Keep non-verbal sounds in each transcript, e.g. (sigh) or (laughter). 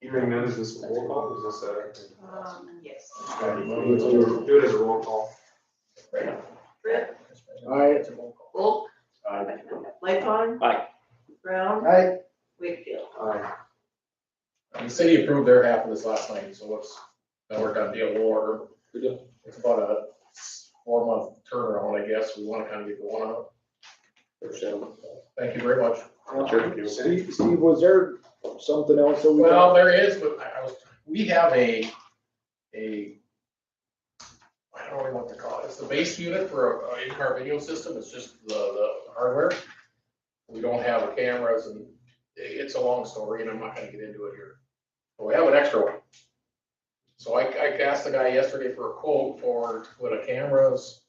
Hearing none, is this a roll call, or is this a? Um, yes. Do it as a roll call. Britt, Aye. Volk, Aye. Lightfon. Aye. Brown, Aye. Wakefield. Aye. The city approved their half of this last night, so what's, now we're gonna deal order. Good deal. It's about a four month turnaround, I guess, we wanna kind of get going on it. Thank you very much. Sure. Steve, Steve, was there something else that we? Well, there is, but I I was, we have a, a, I don't know what to call it, it's the base unit for a- a in-car video system, it's just the, the hardware. We don't have cameras and i- it's a long story and I'm not gonna get into it here. But we have an extra one. So I, I asked the guy yesterday for a quote for, to put a cameras,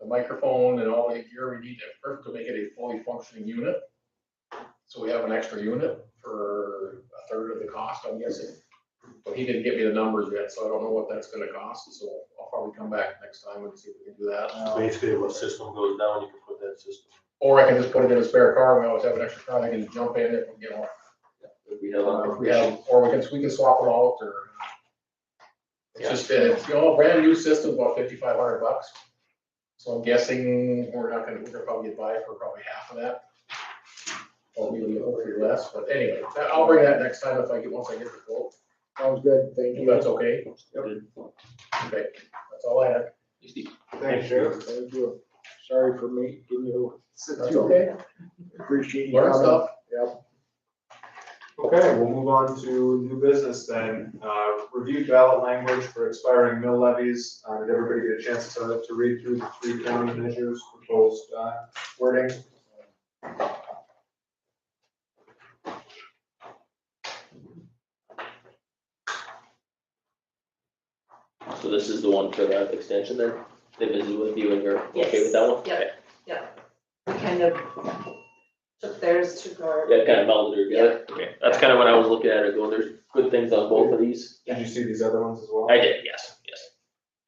the microphone and all the gear we need to, first to make it a fully functioning unit. So we have an extra unit for a third of the cost, I'm guessing. But he didn't give me the numbers yet, so I don't know what that's gonna cost, so I'll probably come back next time and see if we can do that. Um, Basically, if a system goes down, you can put that system. Or I can just put it in a spare car, we always have an extra car, I can jump in if, you know, We if we have, or we can, we can swap it out, or. It's just, that it's, you know, a brand new system, about fifty-five hundred bucks. So I'm guessing we're not gonna, we're gonna probably get by for probably half of that. Or maybe hopefully less, but anyway, that- I'll bring that next time if I get, once I get the quote. Sounds good, thank If you. that's okay. Yep. Okay, that's all I had. Thanks, Sheriff, thank you. Sorry for me, Can you, That's okay. appreciate you. Learn coming. stuff. Yep, Okay, we'll move on to new business then. Uh, Review ballot language for expiring mill levies. Uh, Did everybody get a chance to, to read through the three county measures proposed uh, wording? So this is the one for the extension then, they visited with you and you're okay Yes. with that one? Yep. We kind of took theirs, took our. Yeah, kind of melded her together, okay, that's kind of what I was looking at, it going, there's good things on both of these, Did you see these other ones as well? I did, yes, yes.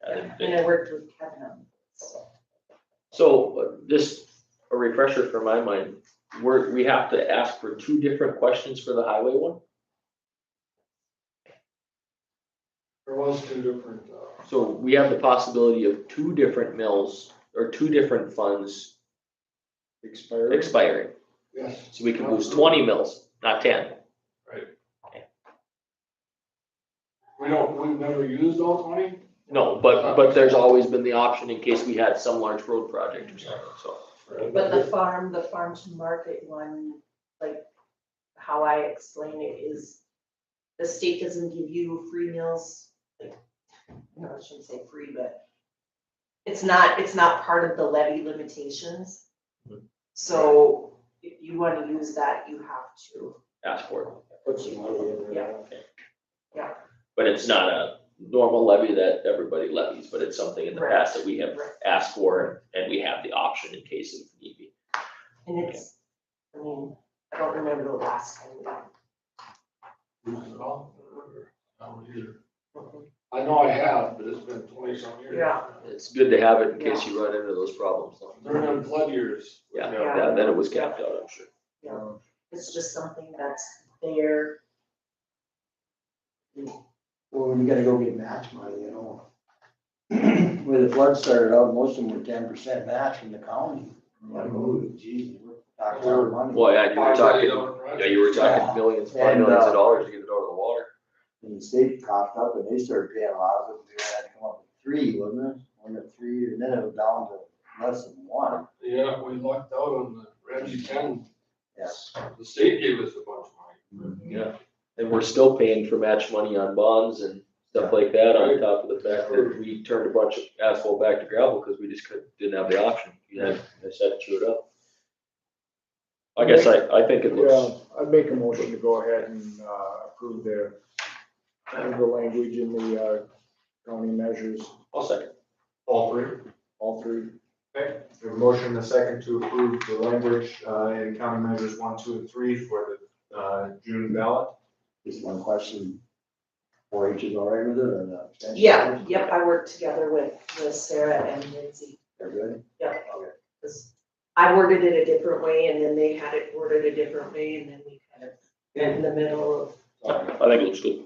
I did, And good. I worked with Kevin on this. So, uh, just a refresher for my mind, we're, we have to ask for two different questions for the highway one? There was two different, uh, So we have the possibility of two different mills or two different funds expired. expiring. Yes. So we can lose twenty mills, not ten. We don't, we've never used all twenty? No, but, but there's always been the option in case we had some large road project or something, so. But the farm, the farm to market one, like, how I explain it is, the state doesn't give you free meals. like, No, I shouldn't say free, but it's not, it's not part of the levy limitations. So if you wanna use that, you have to. Ask for it. Put some money in there. Yeah. But it's not a normal levy that everybody levies, but it's something in the Right. past that we have Right. asked for and we have the option in case of need be. And it's, I mean, I don't remember the last time we got. Used it all? I don't either. I know I have, but it's been twenty some years. Yeah. It's good to have it in case you run into those problems. though. During them flood years. Yeah, Yeah. yeah, then it was capped out, I'm sure. Um, It's just something that's there. Well, you gotta go get match money, you know. (clears throat) When the flood started out, most of them were ten percent match from the county. Like, Mm-hmm. oh, geez, we're talking about money. Well, yeah, you were Five million talking, dollar yeah, you were talking Yeah. millions, five And, millions uh, of dollars to get it out of the water. And the state coughed up and they started paying a lot of it, they had to come up with three, wasn't it? One to three, and then it was down to less than one. project. Yeah, we lucked out on the Ramsey County, Yes. the state gave us a bunch of money. Yeah, and we're still paying for match money on bonds and stuff like that, on top of the fact that we turned a bunch of asphalt back to gravel, because we just couldn't, didn't have the option, you had, I said, chew it up. I guess I, I think it looks, Yeah, I'd make a motion to go ahead and uh, approve the, the language in the uh, county measures, I'll second, all three. all three. Okay, we have a motion and a second to approve the language uh, in county measures one, two, and three for the uh, June ballot. Just one question. Four H is all right with it or not? Yeah, yep, I worked together with, with Sarah and Lindsay. They're good? Yep. 'Cause I worded it a different way and then they had it worded a different way and then we kind of met in the middle of All right. I think it looks good.